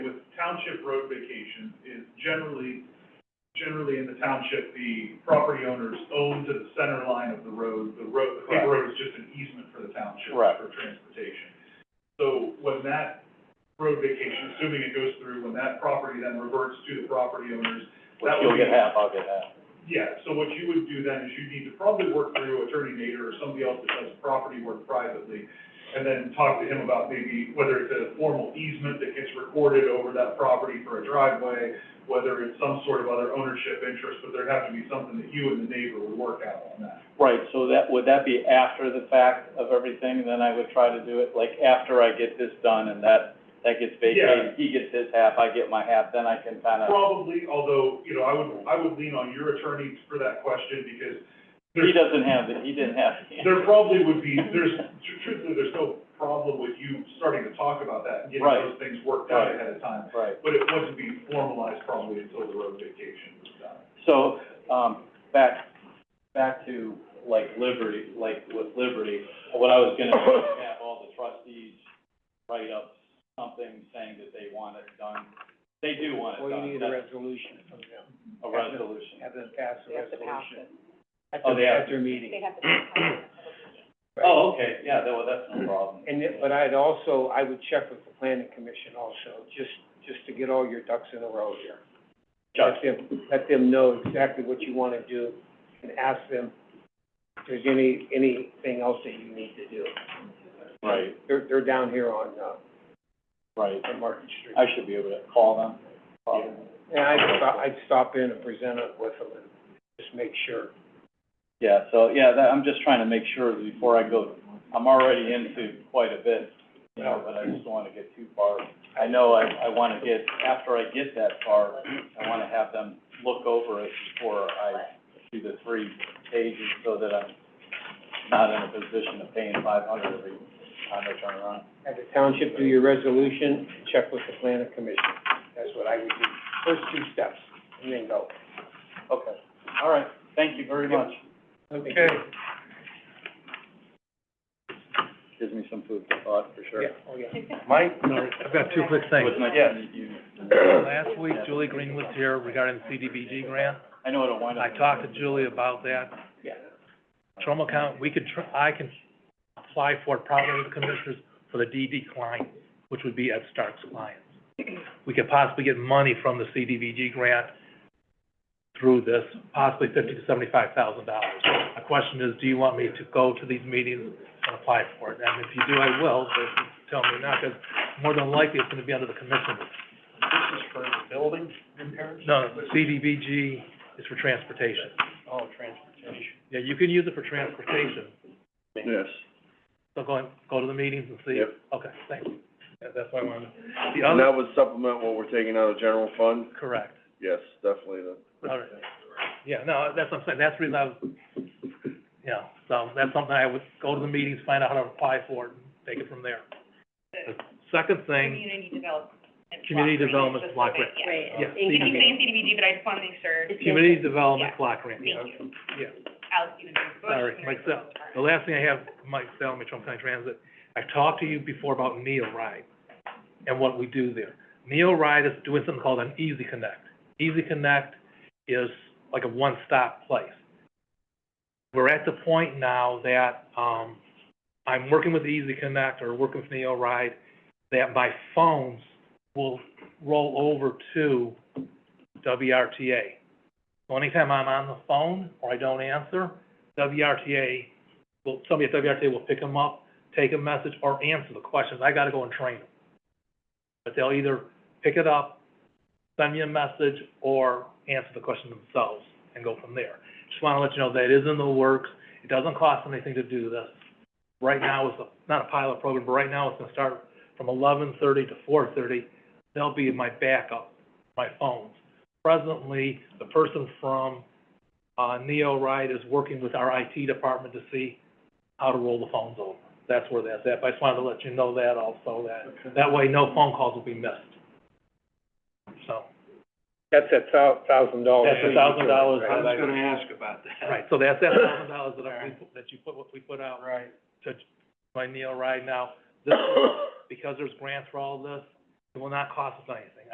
township road vacation is generally, generally in the township, the property owners own to the center line of the road. The road, the paper road is just an easement for the township Correct. for transportation. So when that road vacation, assuming it goes through, when that property then reverts to the property owners, Which That would you'll get be- half, I'll get half. yeah, so what you would do then is you'd need to probably work through Attorney Nader or somebody else that does property work privately, and then talk to him about maybe whether it's a formal easement that gets recorded over that property for a driveway, whether it's some sort of other ownership interest, but there'd have to be something that you and the neighbor would work out on that. Right, so that, would that be after the fact of everything? Then I would try to do it, like, after I get this done and that, that gets vacated, he gets his half, I get my half, then I can kind of, Probably, although, you know, I would, I would lean on your attorney for that question, because he doesn't have, the he didn't have. the- there probably would be, there's, tr- truthfully, there's no problem with you starting to talk about that and getting Right. those things worked out Right. ahead of time. Right, but it wouldn't be formalized probably until the road vacation was done. so, um, back, back to, like, Liberty, like, with Liberty, what I was gonna do is have all the trustees write up something saying that they want it done. They do want it Well, you done, need a that's resolution from them, a resolution. have them pass a They have to pass resolution. it. At Oh, they their, have at their meeting. They have to pass it. right? Oh, okay, yeah, that, well, that's no problem. And it, but I'd also, I would check with the planning commission also, just, just to get all your ducks in a row here. Chuck, Let them, let them know exactly what you wanna do and ask them if there's any, anything else that you need to do. right, They're, they're down here on, uh, right. on Market Street. I should be able to call them. Yeah. And I'd stop, I'd stop in and present it with them and just make sure. Yeah, so, yeah, that, I'm just trying to make sure before I go, I'm already into quite a bit, you know, but I just don't wanna get too far. I know I, I wanna get, after I get that far, I wanna have them look over it before I do the three pages so that I'm not in a position of paying five hundred every time I turn around. Have the township do your resolution, check with the planning commission. That's what I would do. First two steps, and then go. Okay, all right, thank you very much. Okay. Gives me some food for thought, for sure. Yeah, oh, yeah. Mike? I've got two quick things. It was nice Yes. to meet you. Last week, Julie Green was here regarding the CDBG grant. I know it'll wind up. I talked to Julie about that. Yeah. Trumbull County, we could, tr- I can apply for it probably with the commissioners for the DD client, which would be Ed Stark's client. We could possibly get money from the CDBG grant through this, possibly fifty to seventy-five thousand dollars. My question is, do you want me to go to these meetings and apply for it? And if you do, I will, but if you tell me not, because more than likely, it's gonna be under the commissioners. This is for the building repairs? No, CDBG is for transportation. Oh, transportation. Yeah, you can use it for transportation, Yes. so go, and- go to the meetings and see. Yep. Okay, thank you. That- That's why I wanted, the And other, that would supplement what we're taking out of general fund? correct, Yes, definitely. the- all right. Yeah, no, that's what I'm saying, that's the reason I was, you know, so that's something I would go to the meetings, find out how to apply for it, and take it from there. The Second thing, Community development. block Community grant, development specific, block grant. yeah. Right. yeah, You keep CDBG, saying CDBG, but I just wanna make sure community development Yeah. block grant, yeah, Thank you. yeah. Alex, you know, Bush. Sorry, Mike Sell. The last thing I have, Mike Sell, Trumbull County Transit, I talked to you before about Neo Ride and what we do there. Neo Ride is doing something called an Easy Connect. Easy Connect is like a one-stop place. We're at the point now that, um, I'm working with Easy Connect or working with Neo Ride, that my phones will roll over to WRTA. So anytime I'm on the phone or I don't answer, WRTA, will somebody at WRTA will pick them up, take a message, or answer the questions. I gotta go and train them. But they'll either pick it up, send me a message, or answer the question themselves and go from there. Just wanna let you know that it is in the works. It doesn't cost anything to do this. Right now, it's a- not a pilot program, but right now, it's gonna start from eleven thirty to four thirty. They'll be my backup, my phones. Presently, the person from uh, Neo Ride is working with our IT department to see how to roll the phones over. That's where that's at, but I just wanted to let you know that also, that, that way no phone calls will be missed. So, That's a thou- thousand dollars. That's a thousand dollars. Right. was gonna ask about that. right, so that's that thousand dollars that I, we put- that you put, what we put out Right. to, by Neo Ride now. This, because there's grants for all this, it will not cost us anything.